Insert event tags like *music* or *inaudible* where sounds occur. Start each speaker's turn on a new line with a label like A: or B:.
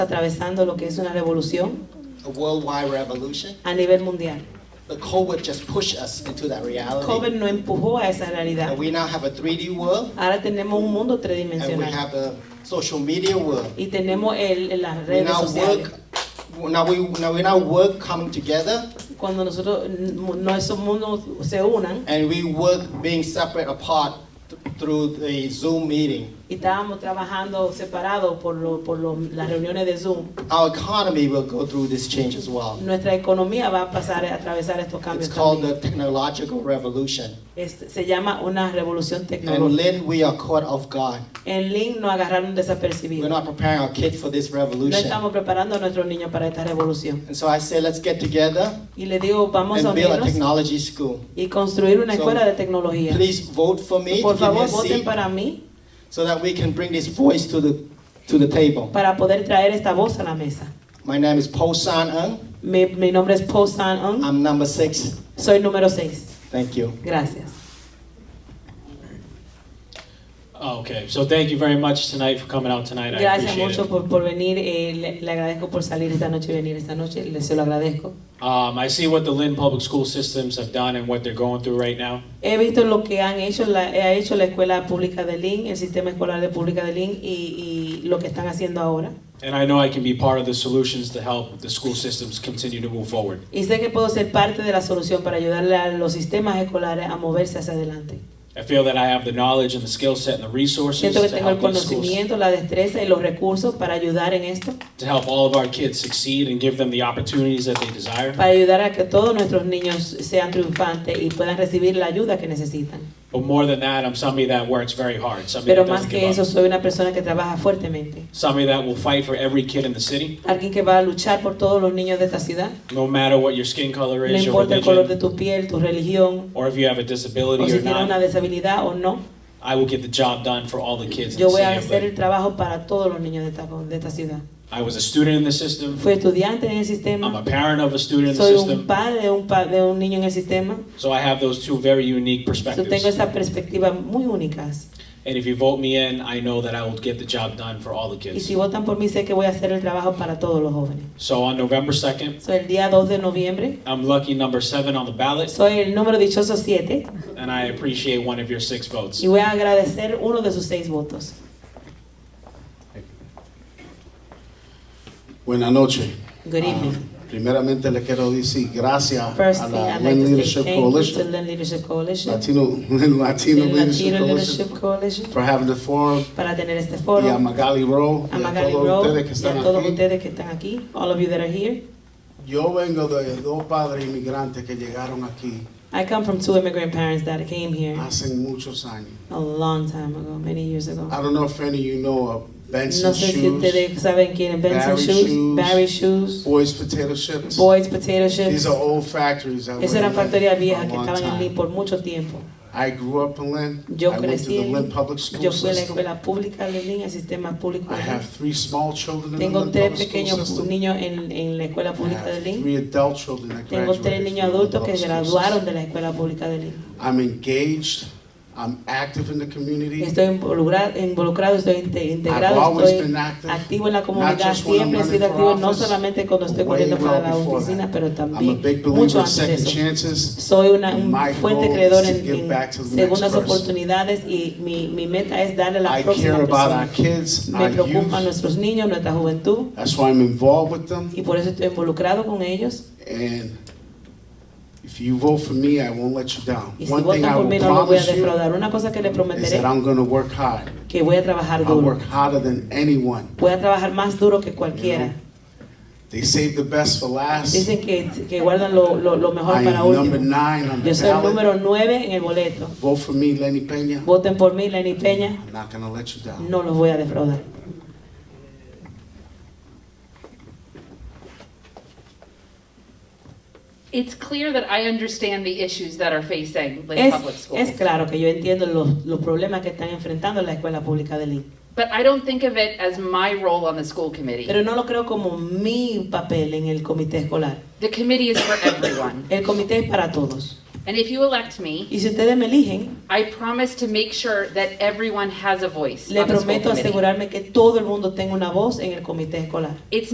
A: atravesando lo que es una revolución
B: a worldwide revolution.
A: a nivel mundial.
B: The COVID just pushed us into that reality.
A: COVID nos empujó a esa realidad.
B: And we now have a 3D world,
A: Ahora tenemos un mundo
B: and we
A: tridimensional
B: have a social media world.
A: y tenemos el, el- las
B: We
A: redes
B: now
A: sociales.
B: work. Now we now we now work coming together,
A: Cuando nosotros mm, nuestros mundos se unan
B: and we work being separate apart th- through the Zoom meeting.
A: y estábamos trabajando separados por, lo- por lo- las reuniones de Zoom,
B: Our economy will go through this change as well.
A: nuestra economía va a pasar a atravesar estos
B: It's
A: cambios.
B: called
A: también.
B: the technological revolution.
A: Es- se llama una revolución
B: And
A: tecnológica.
B: Lynn, we are caught off guard.
A: En Link nos agarraron
B: We're
A: desapercibidos.
B: not preparing our kids for this
A: No
B: revolution.
A: estamos preparando a nuestros niños para esta revolución.
B: And so I say, let's get together
A: Y le digo, vamos a
B: and build a
A: unirnos
B: technology school.
A: y construir una
B: So,
A: escuela de tecnología.
B: Please vote for me to
A: Por
B: give me a
A: favor, voten
B: seat
A: para mí
B: so that we can bring this voice to the, to the table.
A: para poder traer esta voz a la mesa.
B: My name is Paul San Ung.
A: Mi, mi nombre es Paul San Eun.
B: I'm number six.
A: Soy número 6.
B: Thank you.
A: Gracias.
C: Okay, so thank you very much tonight for coming out tonight. I
A: Gracias
C: appreciate
A: mucho
C: it.
A: por, por venir. eh, le, le agradezco por salir esta noche y venir esta noche. Le, se lo agradezco.
C: Um, I see what the Lynn Public School Systems have done and what they're going through right now.
A: He visto lo que han hecho la, ha hecho la escuela pública de Lynn, el sistema escolar de pública de Lynn y, y lo que están haciendo ahora.
C: And I know I can be part of the solutions to help the school systems continue to move forward.
A: Y sé que puedo ser parte de la solución para ayudarle a los sistemas escolares a moverse hacia adelante.
C: I feel that I have the knowledge and the skill set and the resources
A: Siento que
C: to
A: tengo el
C: help, these schools,
A: conocimiento, la destreza y los recursos para ayudar en esto,
C: to help all of our kids succeed and give them the opportunities that they desire.
A: para ayudar a que todos nuestros niños sean triunfantes y puedan recibir la ayuda que necesitan.
C: But more than that, I'm somebody that works very hard, somebody
A: Pero
C: that
A: más
C: doesn't
A: que
C: give
A: eso,
C: up,
A: soy una persona que trabaja fuertemente,
C: somebody that will fight for every kid in the city,
A: alguien que va a luchar por todos los niños de esta ciudad,
C: no matter what your skin color
A: no
C: is, your
A: importa el color de
C: religion,
A: tu piel, tu religión,
C: or if you have a
A: o
C: disability
A: si
C: or
A: tienes
C: not.
A: una deshabilidad o no.
C: I will get the job done for all the kids in
A: Yo
C: the
A: voy a
C: city. of
A: hacer el
C: Lynn.
A: trabajo para todos los niños de esta, de esta ciudad.
C: I was a student in the system.
A: Fui estudiante en el
C: I'm a
A: sistema,
C: parent of a student in the
A: soy un
C: system.
A: padre de un, pa- de un niño en el sistema,
C: So I have those two very unique
A: yo tengo
C: perspectives.
A: esas perspectivas muy únicas.
C: And if you vote me in, I know that I will get the job done for all the
A: Y
C: kids.
A: si votan por mí, sé que voy a hacer el trabajo para todos los jóvenes.
C: So on November 2nd,
A: Soy el día 2 de noviembre.
C: I'm lucky number seven on the ballot,
A: Soy el número dichoso 7
C: and I appreciate one of your six votes.
A: y voy a agradecer uno de sus seis votos.
D: Buenas noches.
A: Good evening.
D: Ah, primeramente le quiero decir gracias
A: First
D: a
A: thing,
D: la
A: I'd like
D: Women
A: to say
D: Leadership
A: thank you to
D: Coalition,
A: Lend Leadership Coalition,
D: Latino, *laughs* Latino
A: the
D: Leadership
A: Latino Leadership
D: Coalition,
A: Coalition,
D: for having the forum,
A: para tener este
D: y a
A: foro.
D: Magali Rowe,
A: A
D: y a
A: Magali
D: todos
A: Rowe
D: ustedes que
A: y
D: están
A: a todos
D: aquí.
A: ustedes que están aquí, all of you that are here.
D: Yo vengo de dos padres inmigrantes que llegaron aquí
A: I come from two immigrant parents that came here
D: hace muchos años.
A: a long time ago, many years ago.
D: I don't know if any of you know of Ah, Benson
A: No sé si
D: Shoes,
A: ustedes saben quién es Benson
D: Barry
A: Shoes,
D: Shoes,
A: Barry Shoes,
D: Boys Potato Chips.
A: Boyd's Potato Chips.
D: These are old factories. that
A: Esas
D: were
A: eran
D: in Lynn
A: factorías
D: for a
A: viejas que
D: long
A: estaban en
D: time.
A: Lee por mucho tiempo.
D: I grew up in Lynn.
A: Yo
D: I went to
A: crecí
D: the
A: en-
D: Lynn Public School
A: Yo fui a la
D: System.
A: escuela pública de Lynn, el sistema público
D: I
A: de
D: have
A: Lynn.
D: three small children in the
A: Tengo
D: public
A: tres
D: school
A: pequeños
D: system.
A: niños en, en la escuela
D: I
A: pública de
D: have
A: Lynn.
D: three adult children that
A: Tengo tres
D: graduated
A: niños
D: from the
A: adultos que
D: public school
A: graduaron
D: system.
A: de la escuela pública de Lynn.
D: I'm engaged, I'm active in the community.
A: Estoy involucrado, involucrado estoy inte-
D: I've
A: integrado,
D: always
A: estoy
D: been active.
A: activo en la comunidad.
D: just when I'm
A: Siempre he
D: running
A: sido
D: for
A: activo, no
D: office,
A: solamente cuando estoy
D: way
A: corriendo para
D: well
A: la
D: before
A: oficina,
D: that.
A: pero
D: I'm a
A: también
D: big
A: mucho
D: believer in
A: antes de
D: second
A: eso.
D: chances.
A: Soy una, un
D: My
A: fuerte
D: goal
A: creedor
D: is to
A: en,
D: give
A: en
D: back to the next
A: segundas
D: person.
A: oportunidades y mi, mi meta es darle a la
D: I
A: próxima
D: care about our
A: persona.
D: kids,
A: Me
D: our
A: preocupan
D: youth.
A: nuestros niños, nuestra juventud.
D: That's why I'm involved with them.
A: y por eso estoy involucrado con ellos.
D: And if you vote for me, I won't let you down.
A: Y si
D: One thing
A: votan
D: I
A: por mí
D: will
A: no los voy a
D: promise you
A: defraudar. Una cosa que les
D: is
A: prometeré,
D: that I'm going to work hard.
A: que voy a trabajar
D: I'll
A: duro.
D: work harder than anyone.
A: Voy a trabajar más duro que cualquiera.
D: They save the best for last.
A: Dicen que, que guardan lo, lo- lo mejor
D: I
A: para
D: am number
A: último.
D: nine on the
A: Yo soy el
D: ballot.
A: número 9 en el boleto.
D: Vote for me, Lenny Peña.
A: Voten por mí, Lenny Peña.
D: I'm not gonna let you down.
A: No los voy a defraudar.
E: It's clear that I understand the issues that are facing Lynn
A: Es,
E: Public Schools.
A: es claro que yo entiendo los, los problemas que están enfrentando la escuela pública de Lee.
E: But I don't think of it as my role on the school committee.
A: Pero no lo creo como mi papel en el comité escolar.
E: the committee is for everyone.
A: El comité es para todos.
E: And if you elect me,
A: Y si ustedes me eligen,
E: I promise to make sure that everyone has a voice
A: le
E: on the school
A: prometo
E: committee.
A: asegurarme que todo el mundo tenga una voz en el comité escolar.
E: It's